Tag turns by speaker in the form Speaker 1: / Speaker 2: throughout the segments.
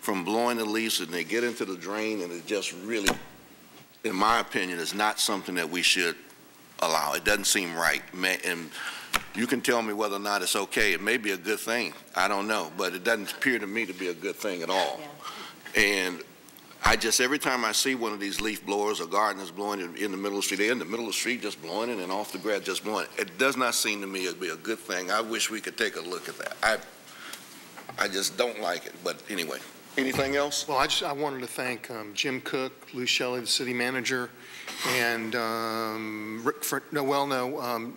Speaker 1: from blowing the leaves and they get into the drain and it just really, in my opinion, is not something that we should allow. It doesn't seem right. Ma- And you can tell me whether or not it's okay. It may be a good thing. I don't know, but it doesn't appear to me to be a good thing at all. And I just, every time I see one of these leaf blowers or gardeners blowing it in the middle of the street, they're in the middle of the street just blowing it and off the grass just blowing it. It does not seem to me it'd be a good thing. I wish we could take a look at that. I, I just don't like it, but anyway. Anything else?
Speaker 2: Well, I just, I wanted to thank um, Jim Cook, Lou Shelley, the city manager, and um, Rick, Fr- no, well, no, um,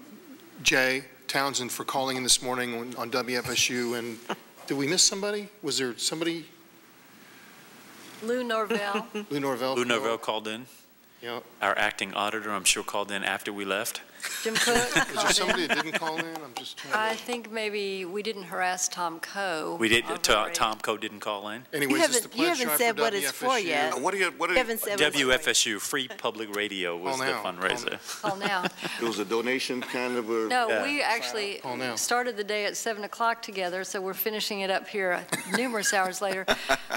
Speaker 2: Jay Townsend for calling in this morning on- on WFSU, and did we miss somebody? Was there somebody,
Speaker 3: Lou Norvell,
Speaker 2: Lou Norvell?
Speaker 4: Lou Norvell called in.
Speaker 2: Yeah.
Speaker 4: Our acting auditor, I'm sure, called in after we left.
Speaker 3: Jim Cook
Speaker 2: Was there
Speaker 3: called in.
Speaker 2: somebody that didn't call in? I'm just
Speaker 3: I
Speaker 2: trying
Speaker 3: think maybe we didn't harass Tom Coe.
Speaker 4: We did,
Speaker 3: I'll
Speaker 4: To-
Speaker 3: read.
Speaker 4: Tom Coe didn't call in.
Speaker 2: to, anyways, it's the
Speaker 5: You haven't-
Speaker 2: pledge
Speaker 5: you
Speaker 2: drive
Speaker 5: haven't
Speaker 2: for
Speaker 5: said what it's for
Speaker 2: WFSU.
Speaker 5: yet.
Speaker 1: Uh, What do you, what do
Speaker 5: You
Speaker 1: you?
Speaker 5: haven't said what it's for yet.
Speaker 4: WFSU, Free Public Radio was
Speaker 2: Call
Speaker 4: the
Speaker 2: now. Call
Speaker 4: fundraiser.
Speaker 3: Call now.
Speaker 1: It was a donation kind of a.
Speaker 3: No,
Speaker 4: Yeah.
Speaker 3: we actually
Speaker 2: Call now.
Speaker 3: started the day at 7 o'clock together, so we're finishing it up here numerous hours later.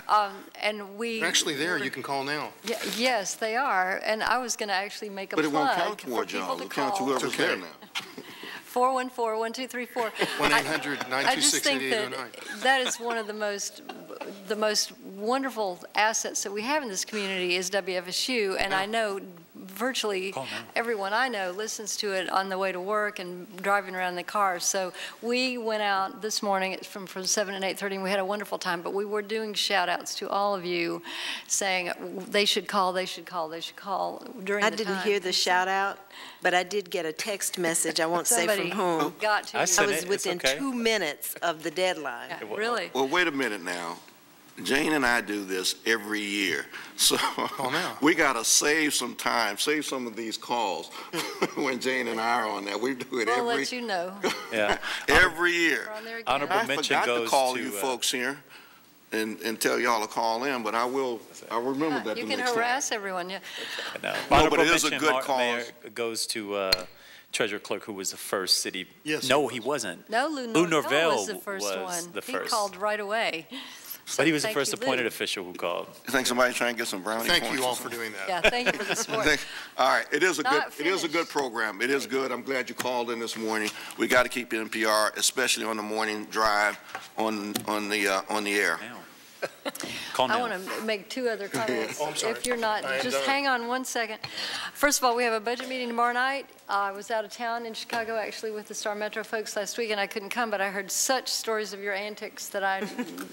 Speaker 3: Um, And we.
Speaker 2: They're Actually, there, you can call now.
Speaker 3: Ye- Yes, they are. And I was going to actually make a
Speaker 1: But it won't
Speaker 3: plug
Speaker 1: count
Speaker 3: for
Speaker 1: towards y'all.
Speaker 3: people to
Speaker 1: It'll count to
Speaker 3: call.
Speaker 1: whoever's there
Speaker 2: Okay.
Speaker 1: now.
Speaker 3: 414-1234. I-
Speaker 2: 1-800-926-8809.
Speaker 3: I just think that that is one of the most, the most wonderful assets that we have in this community is WFSU, and I know virtually
Speaker 4: Call now.
Speaker 3: everyone I know listens to it on the way to work and driving around in the car. So we went out this morning it's from, from 7 and 8:30, and we had a wonderful time, but we were doing shout-outs to all of you, saying they should call, they should call, they should call during
Speaker 5: I
Speaker 3: the time.
Speaker 5: didn't hear the shout out, but I did get a text message, I won't say from
Speaker 3: Somebody
Speaker 5: whom.
Speaker 3: got to
Speaker 4: I
Speaker 3: you.
Speaker 4: said-
Speaker 5: I
Speaker 4: Send it,
Speaker 5: was
Speaker 4: it's
Speaker 5: within
Speaker 4: okay.
Speaker 5: two minutes of the deadline.
Speaker 3: Yeah, Really?
Speaker 1: Well, wait a minute now. Jane and I do this every year, so
Speaker 2: now.
Speaker 1: we gotta save some time, save some of these calls when Jane and I are on that. We do it
Speaker 3: We'll
Speaker 1: every,
Speaker 3: let you know.
Speaker 4: Yeah.
Speaker 1: every year.
Speaker 3: We're on there again.
Speaker 4: Honorable
Speaker 1: I
Speaker 4: mention
Speaker 1: forgot to
Speaker 4: goes
Speaker 1: call you
Speaker 4: to, uh,
Speaker 1: folks here and, and tell y'all to call in, but I will, I'll remember that the
Speaker 3: You
Speaker 1: next time.
Speaker 3: can harass everyone, yeah.
Speaker 4: no.
Speaker 1: but
Speaker 4: Honorable
Speaker 1: it is a
Speaker 4: mention,
Speaker 1: good
Speaker 4: Mar-
Speaker 1: cause.
Speaker 4: Mayor, Goes to uh, Treasurer Clerk, who was the first city.
Speaker 2: Yes,
Speaker 4: No,
Speaker 2: he
Speaker 4: he wasn't,
Speaker 3: No, Lou
Speaker 4: Lou
Speaker 3: Norvell was the
Speaker 4: Norvell
Speaker 3: first
Speaker 4: was
Speaker 3: one.
Speaker 4: the
Speaker 3: He
Speaker 4: first.
Speaker 3: called right away.
Speaker 4: but he was the
Speaker 3: thank
Speaker 4: first
Speaker 3: you, Lou.
Speaker 4: appointed official who called.
Speaker 1: You Think somebody's trying to get some brownie points?
Speaker 2: Thank you
Speaker 1: or
Speaker 2: all for
Speaker 1: something?
Speaker 2: doing that.
Speaker 3: Yeah, thank you for the support.
Speaker 1: Thank- All right, it is a good,
Speaker 3: Not
Speaker 1: it is a good
Speaker 3: finished.
Speaker 1: program. It is good. I'm glad you called in this morning. We got to keep NPR, especially on the morning drive, on, on the, uh, on the air.
Speaker 4: Now. Call
Speaker 3: I
Speaker 4: now.
Speaker 3: want to make two other comments.
Speaker 2: Oh, I'm sorry.
Speaker 3: If you're not,
Speaker 2: I am
Speaker 3: just
Speaker 2: done.
Speaker 3: hang on one second. First of all, we have a budget meeting tomorrow night. I was out of town in Chicago, actually, with the Star Metro folks last week, and I couldn't come, but I heard such stories of your antics that I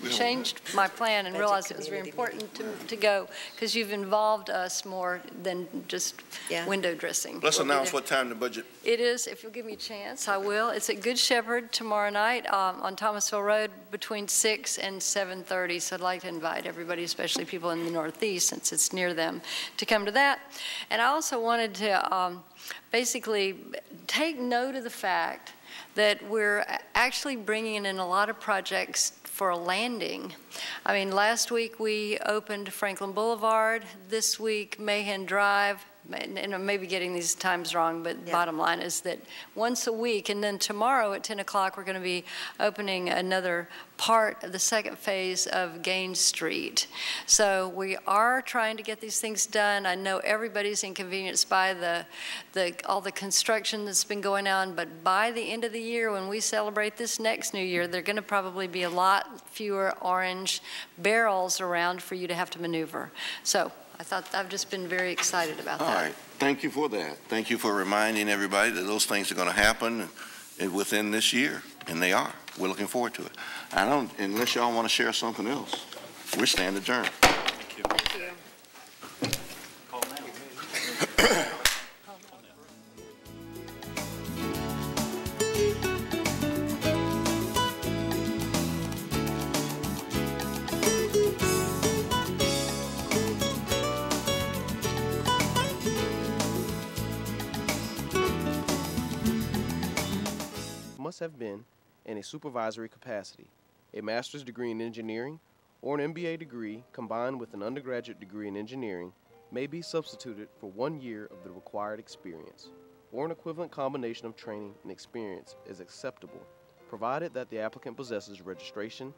Speaker 3: changed my plan and
Speaker 5: Budget
Speaker 3: realized it was very
Speaker 5: community
Speaker 3: important to to go, because you've involved us more than just
Speaker 5: Yeah.
Speaker 3: window dressing.
Speaker 1: Let's
Speaker 3: We'll be
Speaker 1: announce
Speaker 3: there.
Speaker 1: what time the budget
Speaker 3: It is, if you'll give me a chance, I will. It's at Good Shepherd tomorrow night um, on Thomasville Road between 6 and 7:30. So I'd like to invite everybody, especially people in the Northeast, since it's near them, to come to that. And I also wanted to um, basically take note of the fact that we're a- actually bringing in a lot of projects for a landing. I mean, last week, we opened Franklin Boulevard. This week, Mahan Drive and and I may be getting these times wrong, but
Speaker 5: Yeah.
Speaker 3: bottom line is that once a week, and then tomorrow at 10 o'clock, we're going to be opening another part of the second phase of Gaines Street. So we are trying to get these things done. I know everybody's inconvenienced by the, the, all the construction that's been going on, but by the end of the year, when we celebrate this next new year, there're going to probably be a lot fewer orange barrels around for you to have to maneuver. So I thought, I've just been very excited about
Speaker 1: All
Speaker 3: that.
Speaker 1: right, thank you for that. Thank you for reminding everybody that those things are going to happen uh, within this year, and they are. We're looking forward to it. I don't, unless y'all want to share something else, we stand adjourned.
Speaker 6: must have been in a supervisory capacity, a master's degree in engineering, or an MBA degree combined with an undergraduate degree in engineering may be substituted for one year of the required experience, or an equivalent combination of training and experience is acceptable, provided that the applicant possesses registration